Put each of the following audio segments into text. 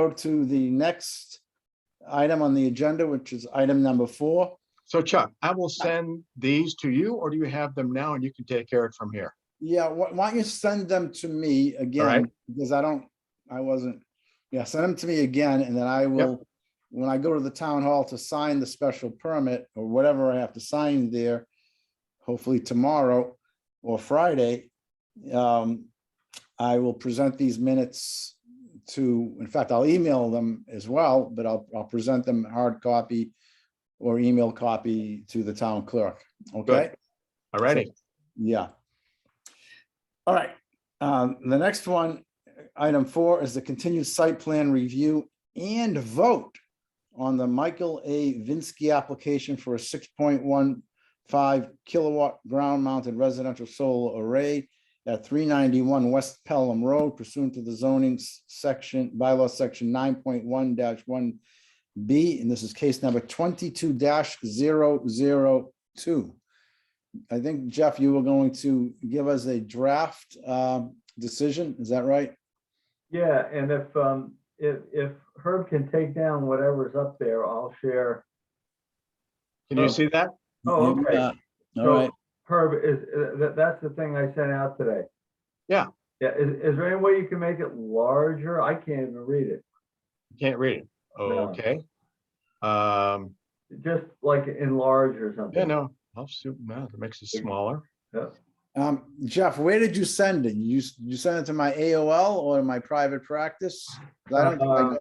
go to the next item on the agenda, which is item number four. So Chuck, I will send these to you, or do you have them now and you can take care of it from here? Yeah, why why don't you send them to me right. again? Because I don't, I wasn't, yeah, send them to me again and then I will, when I go to the town hall to sign the special permit or whatever I have to sign there, hopefully tomorrow or Friday, um, I will present these minutes to, in fact, I'll email them as well, but I'll, I'll present them hard copy or email copy to the town clerk, okay? All righty. Yeah. All right, um, the next one, item four is the continued site plan review and vote on the Michael A. Vinsky application for a six point one five kilowatt ground mounted residential solar array at three ninety-one West Pelham Road pursuant to the zoning s- section, bylaw section nine point one one B, and this is case number twenty-two 2 I think Jeff, you were going to give us a draft um, decision, is that right? Yeah, and if, um, if, if Herb can take down whatever's up there, I'll share. Can you Oh. see that? Oh, You do okay. that. All So, right, Herb, is, uh, that, that's the thing I sent out today. Yeah. Yeah, is, is there any way you can make it larger? I can't even read it. You Can't read it. No. Okay. Um, Just like enlarge or something. yeah, no, I'll see, no, it makes it smaller. Um, Jeff, where did you send it? You, s- you sent it to my AOL or my private practice? 'Cause I don't think I Uh,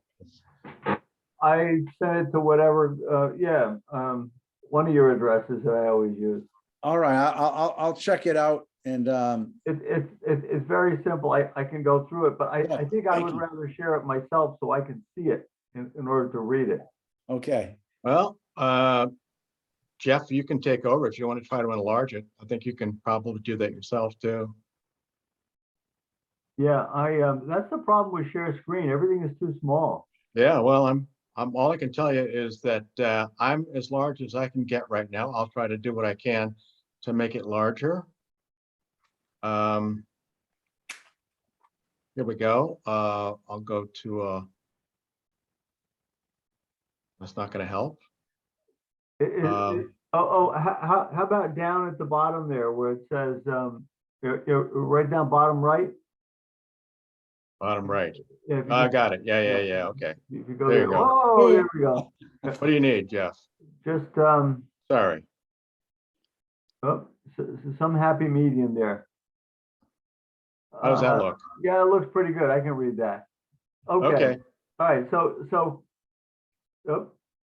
got- I sent it to whatever, uh, yeah, um, one of your addresses that I always use. All right, I- I'll, I'll, I'll check it out and, um, It, it, it, it's very simple. I, I can go through it, but I, Yeah, I think I thank would you. rather share it myself so I can see it in, in order to read it. okay, Well, uh, Jeff, you can take over if you want to try to enlarge it. I think you can probably do that yourself too. Yeah, I, um, that's the problem with share screen. Everything is too small. Yeah, well, I'm, I'm, all I can tell you is that, uh, I'm as large as I can get right now. I'll try to do what I can to make it larger. Um. Here we go. Uh, I'll go to, uh. That's not gonna help. I- i- i- Um, oh, oh, how, how about down at the bottom there where it says, um, you're, right down bottom right? bottom right. Oh, Yeah, if you I go- got it. Yeah, yeah, Yeah. yeah. Okay. If you go there you there, go. oh, there we go. What do you need, Jeff? Just, um, Sorry. oh, s- s- some happy medium there. How does Uh, that look? Yeah, it looks pretty good. I can read that. Okay, Okay, all right, so, so, oh,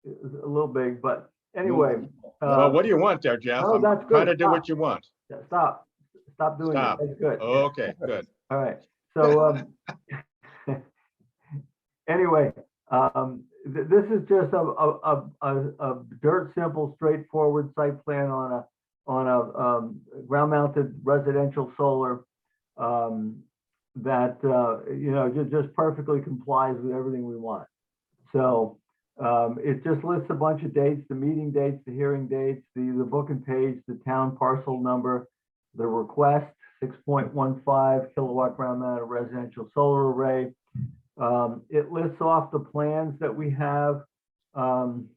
it's a little big, but anyway. well, uh, what do you want there, Jeff? no, I'm that's trying to good. do what you want. Yeah, Stop, stop doing that. Stop. Oh, That's good. All Okay, good. right. So, um, anyway, um, th- this is just a, a, a, a, a dirt simple, straightforward site plan on a, on a, um, ground mounted residential solar. Um, that, uh, you know, ju- just perfectly complies with everything we want. So, um, it just lists a bunch of dates, the meeting dates, the hearing dates, the, the book and page, the town parcel number, the request, six point one five kilowatt ground mounted residential solar array. Um, it lists off the plans that we have. Um,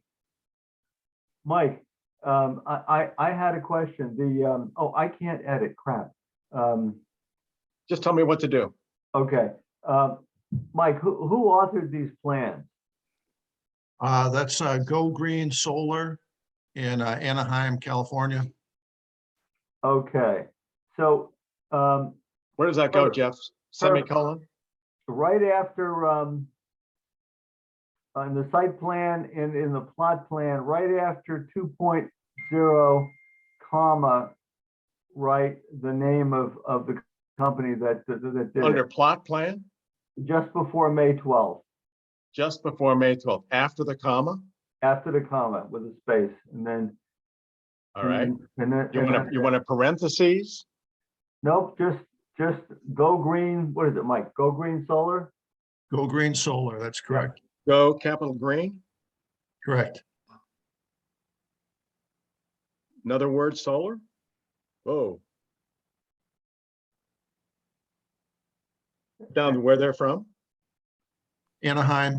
Mike, um, I, I, I had a question. The, um, oh, I can't edit, crap. Um, Just tell me what to do. okay. Um, Mike, who, who authored these plans? Uh, that's, uh, Go Green Solar in uh, Anaheim, California. Okay, so, um, Where does that go, Perfect. Jeff? Semicolon? right after, um, on the site plan and in the plot plan, right after two point zero comma, write the name of, of the company that, that that did Under it, plot plan, just before May twelfth, just before May twelfth, after the comma? after the comma with a space, and then. All right. and then- And then. You and want to, then- you want to parentheses? Nope, just, just go green, what is it, Mike? Go Green Solar? Go Green Solar, that's correct, Go capital green, correct. another word solar? Whoa. Down where they're from? Anaheim,